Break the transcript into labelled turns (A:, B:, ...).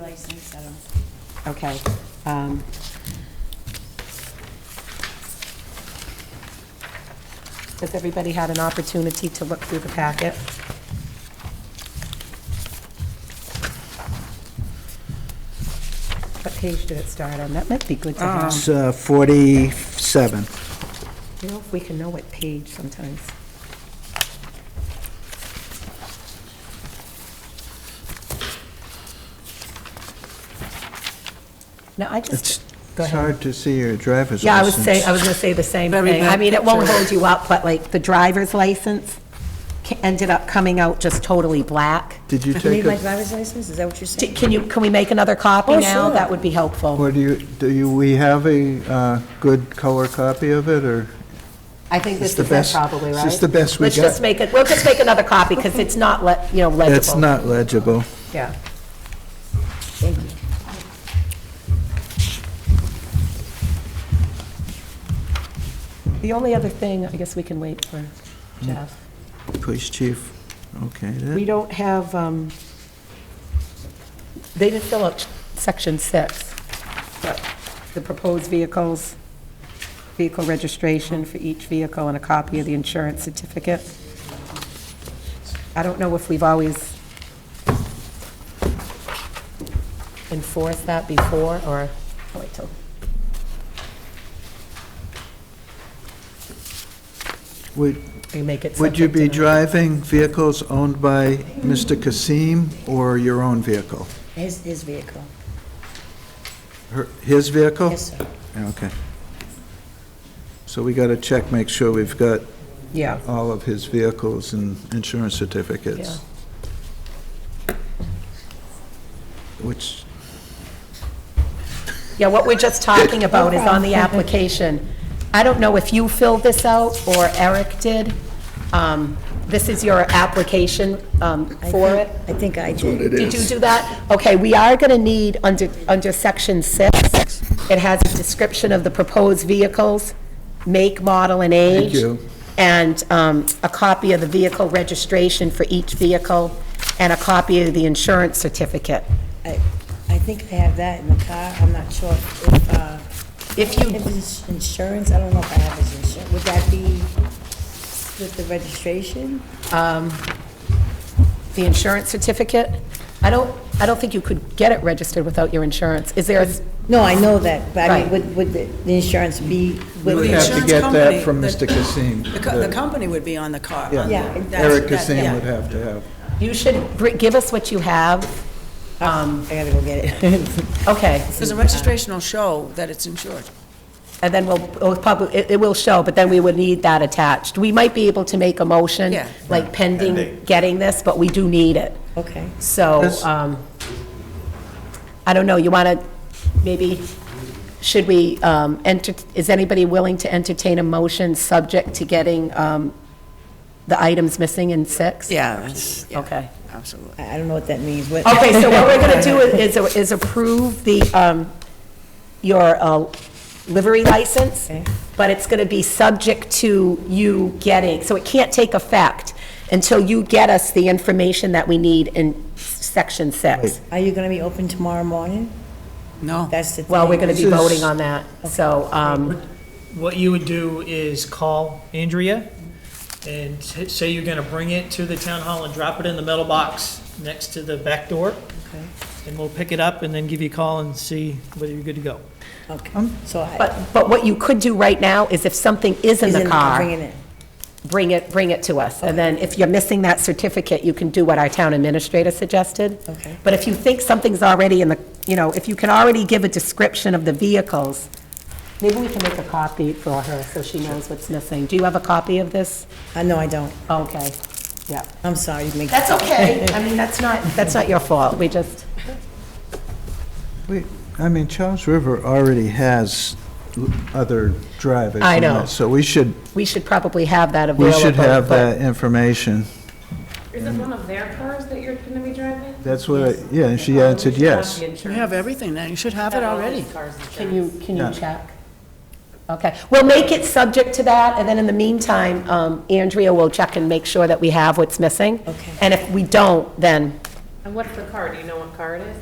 A: license, I don't.
B: Okay. um, Has everybody had an opportunity to look through the packet? What page did it start on? That might be good to have.
C: It's uh, 47.
B: You know, if we can know what page sometimes. No, I
C: It's
B: just, go
C: it's
B: ahead.
C: hard to see your driver's license.
B: Yeah, I would say, I was going to say the same thing. I mean, it won't hold you up, but like, the driver's license ca- ended up coming out just totally black.
C: Did you
D: You need
C: take
D: my
C: a,
D: driver's license, is that what you're
B: D-
D: saying?
B: Can you, can we make another copy
D: Oh,
B: now?
D: sure.
B: That would be helpful.
C: or do you, do you, we have a uh, good color copy of it, or?
B: I think this
C: It's the
B: is it
C: best-
B: probably,
C: it's
B: right?
C: just the best we
B: Let's just
C: got.
B: make it, we'll just make another copy, because it's not, le- you know, legible.
C: It's not legible.
B: Yeah. The only other thing, I guess we can wait for Jeff.
C: Police chief, okay. that-
B: We don't have, um, they didn't fill out section six, but the proposed vehicles, vehicle registration for each vehicle and a copy of the insurance certificate. I don't know if we've always enforced that before, or, oh, wait till,
C: Would,
B: we make it
C: would you
B: subject to
C: be
B: the-
C: driving vehicles owned by Mr. Kasim or your own vehicle?
D: His, his vehicle.
C: Her- His vehicle?
D: Yes, sir.
C: Okay. So we got to check, make sure we've got
B: Yeah,
C: all of his vehicles and insurance certificates. Which,
B: yeah, what we're just talking about is on the application. I don't know if you filled this out, or Eric did. Um, This is your application um,
D: I
B: for
D: think-
B: it.
D: I think I did.
B: Did you do that? Okay, we are going to need, under, under section six, it has a description of the proposed vehicles, make, model, and age.
C: you.
B: And um, a copy of the vehicle registration for each vehicle, and a copy of the insurance certificate.
D: I, I think I have that in the car, I'm not sure if, uh.
B: If you-
D: If it's insurance, I don't know if I have his insurance, would that be with the registration?
B: The insurance certificate, I don't, I don't think you could get it registered without your insurance. Is there, a-
D: No, I know that, but I mean,
B: Right.
D: would, would the the insurance be?
C: You would
D: with-
C: have to
E: insurance
C: get that
E: company,
C: from
E: the-
C: Mr. Kasim.
E: The co- the company would be on the car. on the-
C: Yeah,
D: that's-
C: Eric
E: that-
C: Kasim
E: yeah.
C: would have to have.
B: you should br- give us what you have. Um,
D: I gotta go get it.
B: Okay,
E: Because the registration will show that it's insured.
B: and then we'll, we'll probably, it, it will show, but then we would need that attached. We might be able to make a motion,
E: Yeah.
B: like pending getting this, but we do need it.
D: Okay.
B: So,
C: Yes.
B: um, I don't know, you want to, maybe, should we, um, enter, is anybody willing to entertain a motion subject to getting, um, the items missing in six?
E: Yeah, that's,
B: Okay.
E: absolutely.
D: I I don't know what that means, what?
B: Okay, so what we're going to do is, is approve the, um, your uh, livery license,
D: Okay.
B: but it's going to be subject to you getting, so it can't take effect until you get us the information that we need in section six.
D: Are you gonna be open tomorrow morning?
E: No.
D: That's the thing.
B: Well, we're going to be
C: This is-
B: voting on that, so, um,
F: What you would do is call Andrea and t- say you're going to bring it to the town hall and drop it in the metal box next to the back door.
D: Okay.
F: And we'll pick it up and then give you a call and see whether you're good to go.
B: Um,
D: Okay, so I.
B: but, but what you could do right now is if something is in
D: He's
B: the car,
D: Bringing it.
B: bring it, bring it to us. And then if you're missing that certificate, you can do what our town administrator suggested.
D: Okay.
B: But if you think something's already in the, you know, if you can already give a description of the vehicles, maybe we can make a copy for her so she knows what's missing. Do you have a copy of this?
D: Uh, no, I don't.
B: Okay, yeah.
D: I'm sorry, you make.
B: That's okay. I mean, that's not, that's not your fault. We just,
C: We- I mean, Charles River already has l- other drivers.
B: I
C: and
B: know.
C: that, So we should,
B: we should probably have that
C: we
B: available.
C: should have
B: but-
C: that information.
G: Is it one of their cars that you're going to be driving?
C: That's what, I- yeah, and she answered yes.
E: You have everything now. You should have it already.
B: Can you, can
C: Yeah.
B: you check? Okay, we'll make it subject to that, and then in the meantime, um, Andrea will check and make sure that we have what's missing.
D: Okay.
B: And if we don't, then
G: And what's the car? Do you know what car it is?